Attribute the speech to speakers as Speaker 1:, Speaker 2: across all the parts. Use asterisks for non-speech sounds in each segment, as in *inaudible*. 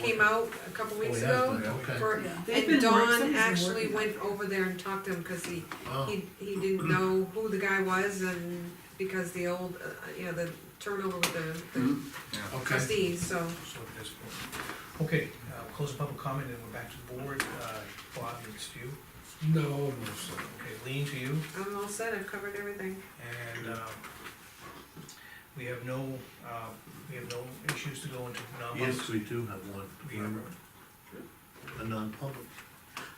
Speaker 1: came out a couple
Speaker 2: Oh,
Speaker 1: weeks
Speaker 2: yeah,
Speaker 1: ago.
Speaker 2: okay.
Speaker 1: for-
Speaker 3: Yeah. They've
Speaker 1: And
Speaker 3: been work-
Speaker 1: Don
Speaker 3: something's been
Speaker 1: actually
Speaker 3: working.
Speaker 1: went over there and talked to him, cause he,
Speaker 2: Oh,
Speaker 1: he, he didn't know who the guy was and because the old, uh, you know, the turnover with the- the
Speaker 2: Mm, okay.
Speaker 1: trustees, so.
Speaker 4: So it is. Okay, uh, we'll close the public comment and we're back to the board. Uh, Bob, it's you.
Speaker 2: No, no, sir.
Speaker 4: Okay, lean to you.
Speaker 1: I'm all set, I've covered everything.
Speaker 4: And um, we have no, uh, we have no issues to go into
Speaker 2: Yes,
Speaker 4: non-public.
Speaker 2: we do have one,
Speaker 4: We have
Speaker 2: remember? A non-public.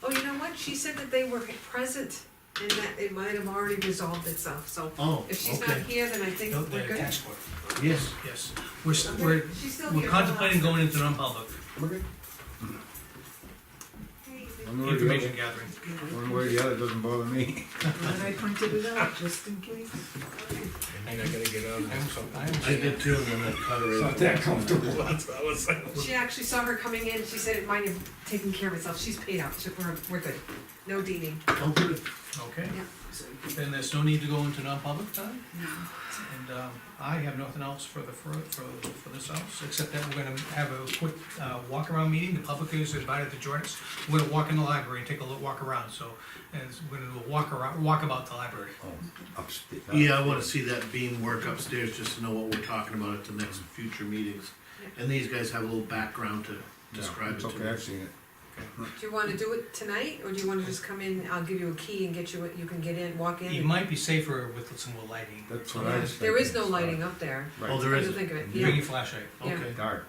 Speaker 1: Oh, you know what, she said that they were present and that it might have already resolved itself, so
Speaker 2: Oh,
Speaker 1: if she's not
Speaker 2: okay.
Speaker 1: here, then I think
Speaker 4: No,
Speaker 1: we're
Speaker 4: the
Speaker 1: good.
Speaker 4: tax court.
Speaker 2: Yes.
Speaker 4: Yes, we're, s-
Speaker 1: Okay,
Speaker 4: we're,
Speaker 1: She's still here.
Speaker 4: we're contemplating going into non-public,
Speaker 1: Hey,
Speaker 4: information gathering.
Speaker 5: One way or the other doesn't bother me.
Speaker 3: Glad I pointed it out, just in case.
Speaker 6: And I gotta get out of this.
Speaker 2: I did too, and then I cut her.
Speaker 6: Not that comfortable, that's what I was saying.
Speaker 1: She actually saw her coming in, she said, mind you, taking care of itself, she's paid out, so we're, we're good, no deeding.
Speaker 2: Oh, good.
Speaker 4: Okay,
Speaker 1: Yeah.
Speaker 4: then there's no need to go into non-public time? And um, I have nothing else for the, for, for for this house, except that we're gonna have a quick uh, walk-around meeting. The public is invited to join us. We're gonna walk in the library and take a look, walk around, so, and it's- we're gonna do a walk around, walk about the library.
Speaker 5: Oh, Upstairs.
Speaker 2: Yeah, I wanna see that beam work upstairs, just to know what we're talking about at the next future meetings. And these guys have a little background to describe it
Speaker 5: It's
Speaker 2: to
Speaker 5: okay,
Speaker 2: me.
Speaker 5: I've seen it.
Speaker 1: Do you wanna do it tonight, or do you wanna just come in, I'll give you a key and get you, you can get in, walk
Speaker 4: It
Speaker 1: in?
Speaker 4: might be safer with some more lighting,
Speaker 5: That's what I was thinking.
Speaker 1: There is no lighting up there,
Speaker 2: Oh,
Speaker 5: Right,
Speaker 2: there
Speaker 1: come to
Speaker 2: is,
Speaker 1: think of it,
Speaker 4: bring
Speaker 1: yeah,
Speaker 4: your flashlight.
Speaker 1: yeah.
Speaker 2: okay.
Speaker 5: dark.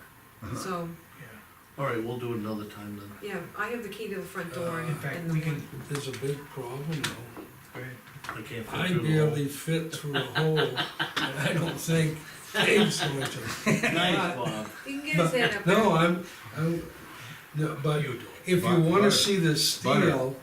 Speaker 1: so,
Speaker 4: Yeah.
Speaker 2: All right, we'll do it another time then.
Speaker 1: yeah, I have the key to the front door
Speaker 4: In
Speaker 1: and
Speaker 4: fact,
Speaker 1: and the
Speaker 4: we can,
Speaker 1: one.
Speaker 6: There's a big problem though.
Speaker 4: go ahead.
Speaker 2: I can't.
Speaker 6: I
Speaker 2: fit through
Speaker 6: barely fit through a
Speaker 4: *laughs*
Speaker 2: the hole.
Speaker 6: hole, and I don't think Dave's going to.
Speaker 2: Nice, Bob.
Speaker 1: You can get his head
Speaker 6: *laughs*
Speaker 1: up there.
Speaker 6: No, I'm, I'm, no, but
Speaker 4: You do
Speaker 6: if you
Speaker 5: Butter.
Speaker 6: wanna see the
Speaker 5: Butter.
Speaker 6: steel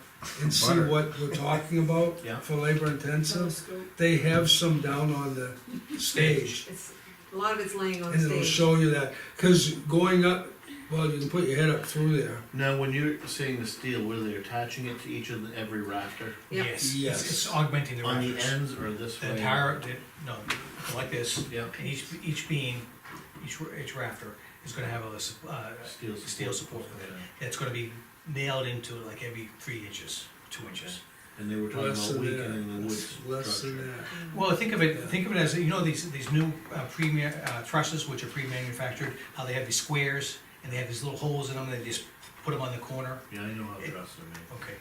Speaker 6: and see
Speaker 5: Butter.
Speaker 6: what we're talking about
Speaker 2: *laughs* Yeah.
Speaker 6: for labor intensive, they have some down on the stage.
Speaker 1: It's, a lot of it's laying on
Speaker 6: And
Speaker 1: the
Speaker 6: it'll
Speaker 1: stage.
Speaker 6: show you that, cause going up, well, you can put your head up through there.
Speaker 2: Now, when you're saying the steel, were they attaching it to each of the, every rafter?
Speaker 1: Yep.
Speaker 4: Yes,
Speaker 6: Yes.
Speaker 4: it's it's augmenting the
Speaker 2: On the
Speaker 4: rafters.
Speaker 2: ends or this
Speaker 4: The
Speaker 2: way?
Speaker 4: entire, the- no, like this,
Speaker 2: Yeah,
Speaker 4: And each, each beam, each, ra- each rafter is gonna have a, s- uh,
Speaker 2: steel.
Speaker 4: steel support with it. It's gonna be nailed into it like every three inches, two inches.
Speaker 2: And they were talking
Speaker 6: Less
Speaker 2: about
Speaker 6: than
Speaker 2: weakening the wood
Speaker 6: that, less than
Speaker 2: structure.
Speaker 6: that.
Speaker 3: uh,
Speaker 4: Well, think of it, think of it as, you know, these, these new uh, premier, uh, trusses, which are pre-manufactured, how they have these squares, and they have these little holes in them, they just put them on the corner,
Speaker 2: Yeah, I know how trusses are made.
Speaker 4: okay.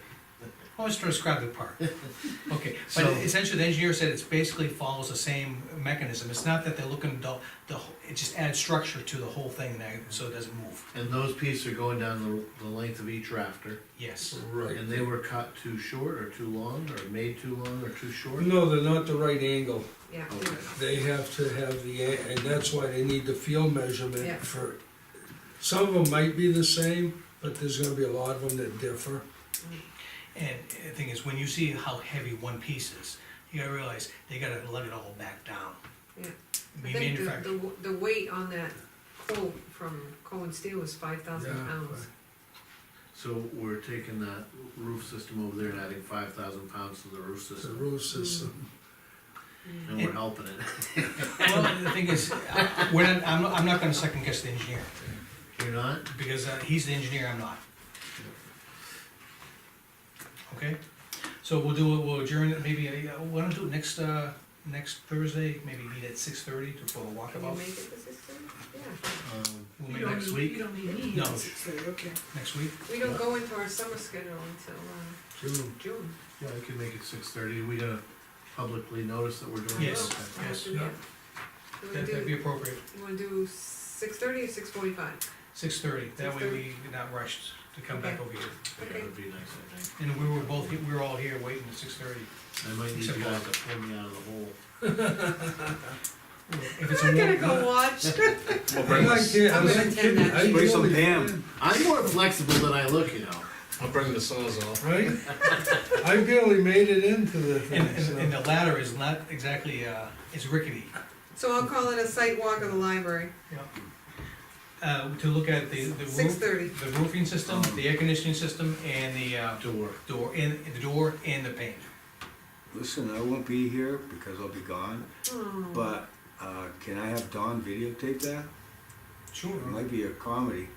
Speaker 4: I was trying to describe the part. Okay, but
Speaker 2: So-
Speaker 4: essentially, the engineer said it's basically follows the same mechanism, it's not that they're looking, to- the, wh- it just adds structure to the whole thing, now, so it doesn't move,
Speaker 2: And those pieces are going down the, the length of each rafter,
Speaker 4: yes.
Speaker 6: Right.
Speaker 2: and they were cut too short or too long, or made too long or too short?
Speaker 6: No, they're not the right angle.
Speaker 1: Yeah,
Speaker 2: Okay.
Speaker 6: They have to have the, a- and that's why they need the field
Speaker 1: Yeah.
Speaker 6: measurement for, some of them might be the same, but there's gonna be a lot of them that differ.
Speaker 4: And the thing is, when you see how heavy one piece is, you gotta realize they gotta let it all back down.
Speaker 1: Yeah. I
Speaker 4: Be
Speaker 1: think the, the,
Speaker 4: manufactured,
Speaker 1: w- the weight on that quote from Cohen Steel was five thousand
Speaker 6: Yeah,
Speaker 1: pounds.
Speaker 2: So we're taking that roof system over there and adding five thousand pounds to the roof
Speaker 6: It's a
Speaker 2: system,
Speaker 6: roof system.
Speaker 1: Mm.
Speaker 2: and we're helping it. *laughs*
Speaker 4: well, the thing is, I- we're not, I'm, I'm not gonna second guess the engineer,
Speaker 2: You're not?
Speaker 4: because uh, he's the engineer, I'm not. Okay, so we'll do, it. we'll adjourn, it maybe, uh, why don't we do it next, uh, next Thursday, maybe meet at six thirty to, for a
Speaker 1: Can you
Speaker 4: walkabout.
Speaker 1: make it this system? Yeah,
Speaker 2: Um,
Speaker 4: We'll
Speaker 3: You
Speaker 4: meet
Speaker 3: don't
Speaker 4: next,
Speaker 3: need-
Speaker 2: week?
Speaker 3: You don't need me.
Speaker 4: No.
Speaker 3: Okay.
Speaker 4: next week,
Speaker 1: we don't go into our summer schedule until, uh,
Speaker 6: June.
Speaker 1: June.
Speaker 2: yeah, I can make it six thirty, we gotta publicly notice that we're doing
Speaker 4: Yes.
Speaker 2: this.
Speaker 1: Well,
Speaker 4: yes,
Speaker 1: after that. You wanna
Speaker 4: that, that'd be
Speaker 1: do,
Speaker 4: appropriate,
Speaker 1: you wanna do six thirty or six forty-five?
Speaker 4: six thirty, that way
Speaker 1: 6:30.
Speaker 4: we not rushed to come back over here.
Speaker 2: Yeah, that'd be nice, I think.
Speaker 4: And we were both, we were all here waiting at six thirty.
Speaker 2: I might need you
Speaker 4: Except
Speaker 2: guys to pull me out of the hole.
Speaker 4: If it's a
Speaker 1: I'm gonna
Speaker 4: warm,
Speaker 1: go watch.
Speaker 6: I'm not kidding,
Speaker 1: I'm
Speaker 6: I'm
Speaker 1: gonna
Speaker 6: not
Speaker 1: attend
Speaker 6: kidding.
Speaker 1: that.
Speaker 6: I
Speaker 5: Play some
Speaker 6: really-
Speaker 5: damn.
Speaker 2: I'm more flexible than I look, you know.
Speaker 6: I'll bring the sawzall. Right? I barely made it into the
Speaker 4: and,
Speaker 6: thing,
Speaker 4: and, and
Speaker 6: so.
Speaker 4: the ladder is not exactly, uh, it's rickety.
Speaker 1: So I'll call it a site walk of the library,
Speaker 4: Uh, to look at the, the
Speaker 1: six
Speaker 4: roof,
Speaker 1: thirty.
Speaker 4: the roofing system, the air conditioning system, and the, uh,
Speaker 2: Door.
Speaker 4: door, and, the door and the paint.
Speaker 5: Listen, I won't be here
Speaker 1: Oh.
Speaker 5: because I'll be gone, but, uh, can I have Don videotape that?
Speaker 4: Sure.
Speaker 5: It might be a comedy.